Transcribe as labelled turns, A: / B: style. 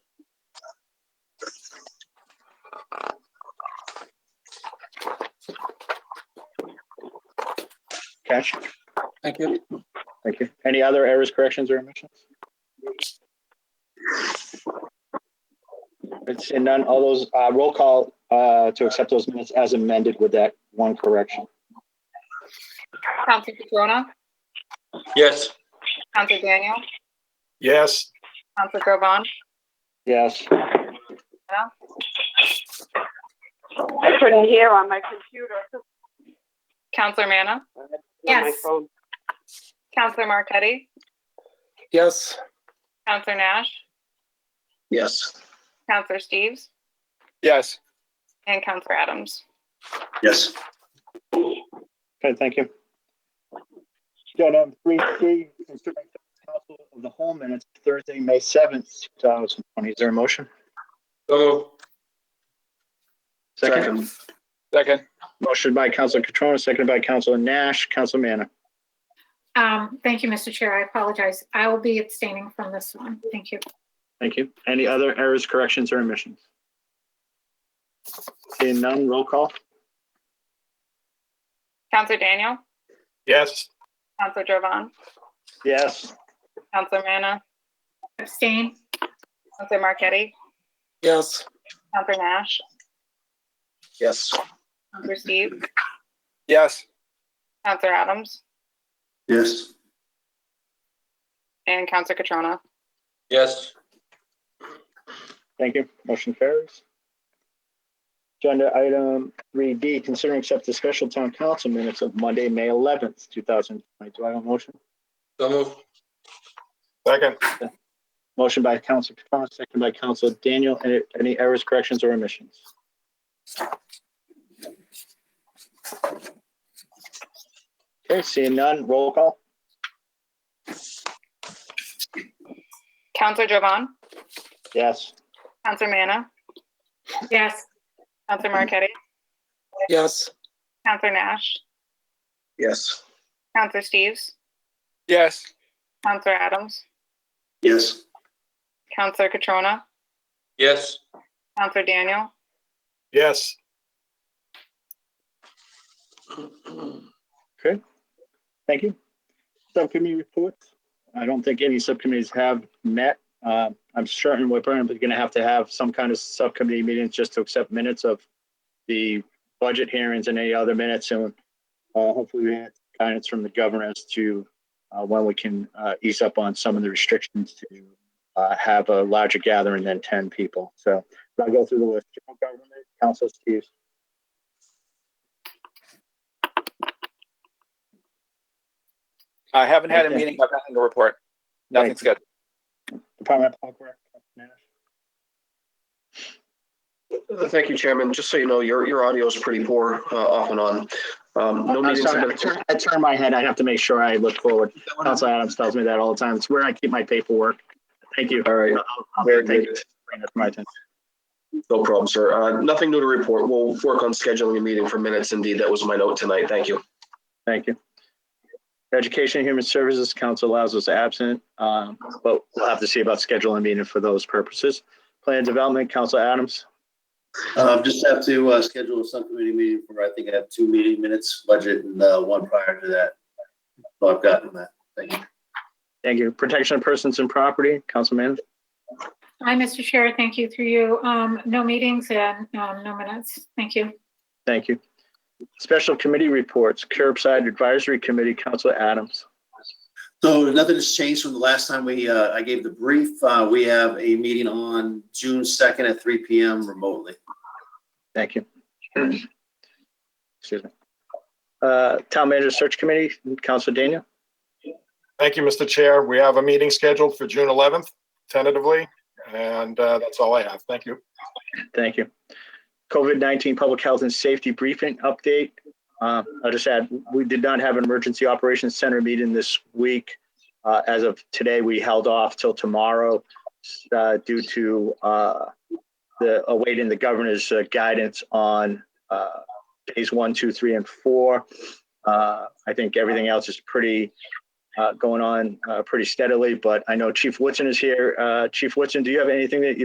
A: Okay,
B: Thank you.
A: thank you. Any other errors, corrections, or omissions? It's in none, all those, uh, roll call, uh, to accept those minutes as amended with that one correction.
C: Counselor Catrona,
B: Yes.
C: Counselor Daniel,
D: Yes.
C: Counselor Groban,
A: Yes,
E: I couldn't hear on my computer.
C: Counselor Manna,
E: On my
C: Yes.
E: phone.
C: Counselor Marquetti,
B: Yes.
C: Counselor Nash,
B: Yes.
C: Counselor Steves,
D: Yes.
C: and Counselor Adams.
B: Yes.
A: okay, thank you. Agenda item three C, consideration of council of the whole minutes, Thursday, May seventh, two thousand twenty. Is there a motion?
B: So moved.
A: Second,
D: Second.
A: motion by Counselor Catrona, seconded by Counselor Nash, Counselor Manna.
F: Um, thank you, Mr. Chair. I apologize. I will be abstaining from this one. Thank you.
A: Thank you. Any other errors, corrections, or omissions? Seeing none, roll call?
C: Counselor Daniel,
D: Yes.
C: Counselor Groban,
A: Yes.
C: Counselor Manna,
F: Abstain?
C: Counselor Marquetti,
B: Yes.
C: Counselor Nash,
B: Yes.
C: Counselor Steves,
D: Yes.
C: Counselor Adams,
B: Yes.
C: and Counselor Catrona.
B: Yes.
A: Thank you. Motion carries. Agenda item three D, consider and accept the special town council minutes of Monday, May eleventh, two thousand twenty. Do I have a motion?
B: So moved.
D: Second.
A: Motion by Council Capone, second by Council Daniel. Any- Any errors, corrections, or omissions? Okay, seeing none, roll call?
C: Counselor Groban,
A: Yes.
C: Counselor Manna,
F: Yes.
C: Counselor Marquetti,
B: Yes.
C: Counselor Nash,
B: Yes.
C: Counselor Steves,
D: Yes.
C: Counselor Adams,
B: Yes.
C: Counselor Catrona,
B: Yes.
C: Counselor Daniel,
D: Yes.
A: Thank you. Subcommittee reports. I don't think any subcommittees have met. Uh, I'm certain we're probably going to have to have some kind of subcommittee meetings just to accept minutes of the budget hearings and any other minutes. And uh, hopefully we have guidance from the governor as to uh, when we can uh, ease up on some of the restrictions to uh, have a larger gathering than 10 people. So I'll go through the list. General Government, Council Steves.
D: I haven't had a meeting. I've nothing to report. Nothing's good.
A: Department of Public Works.
G: Uh, Thank you, Chairman. Just so you know, your, your audio is pretty poor uh, off and on. Um, No
A: I'm
G: meetings have
A: sorry, I
G: been.
A: turn- I turn my head. I have to make sure I look forward. Council Adams tells me that all the time. It's where I keep my paperwork. Thank you.
G: All right,
A: I'll- I'll-
G: very
A: thank you
G: good.
A: for bringing that to my attention.
G: No problem, sir. Uh, Nothing new to report. We'll work on scheduling a meeting for minutes. Indeed, that was my note tonight. Thank you.
A: Thank you. Education and Human Services Council allows us absent, um, but we'll have to see about scheduling a meeting for those purposes. Plan Development, Council Adams.
H: Um, just have to, uh, schedule a subcommittee meeting for, I think I have two meeting minutes, budget and, uh, one prior to that. So I've gotten that. Thank you.
A: Thank you. Protection of Persons and Property, Councilman.
F: Hi, Mr. Chair. Thank you through you. Um, no meetings and, um, no minutes. Thank you.
A: Thank you. Special Committee Reports, Curbside Advisory Committee, Council Adams.
H: So nothing has changed from the last time we, uh, I gave the brief. Uh, we have a meeting on June second at three P M remotely.
A: Thank you. Excuse me. Uh, Town Manager Search Committee, Council Daniel.
D: Thank you, Mr. Chair. We have a meeting scheduled for June 11th tentatively, and uh, that's all I have. Thank you.
A: Thank you. COVID-19 Public Health and Safety Briefing Update. Uh, I'll just add, we did not have an Emergency Operations Center meeting this week. Uh, As of today, we held off till tomorrow uh, due to uh, the awaiting the governor's uh, guidance on uh, phase one, two, three, and four. Uh, I think everything else is pretty, uh, going on uh, pretty steadily, but I know Chief Woodson is here. Uh, Chief Woodson, do you have anything that you'd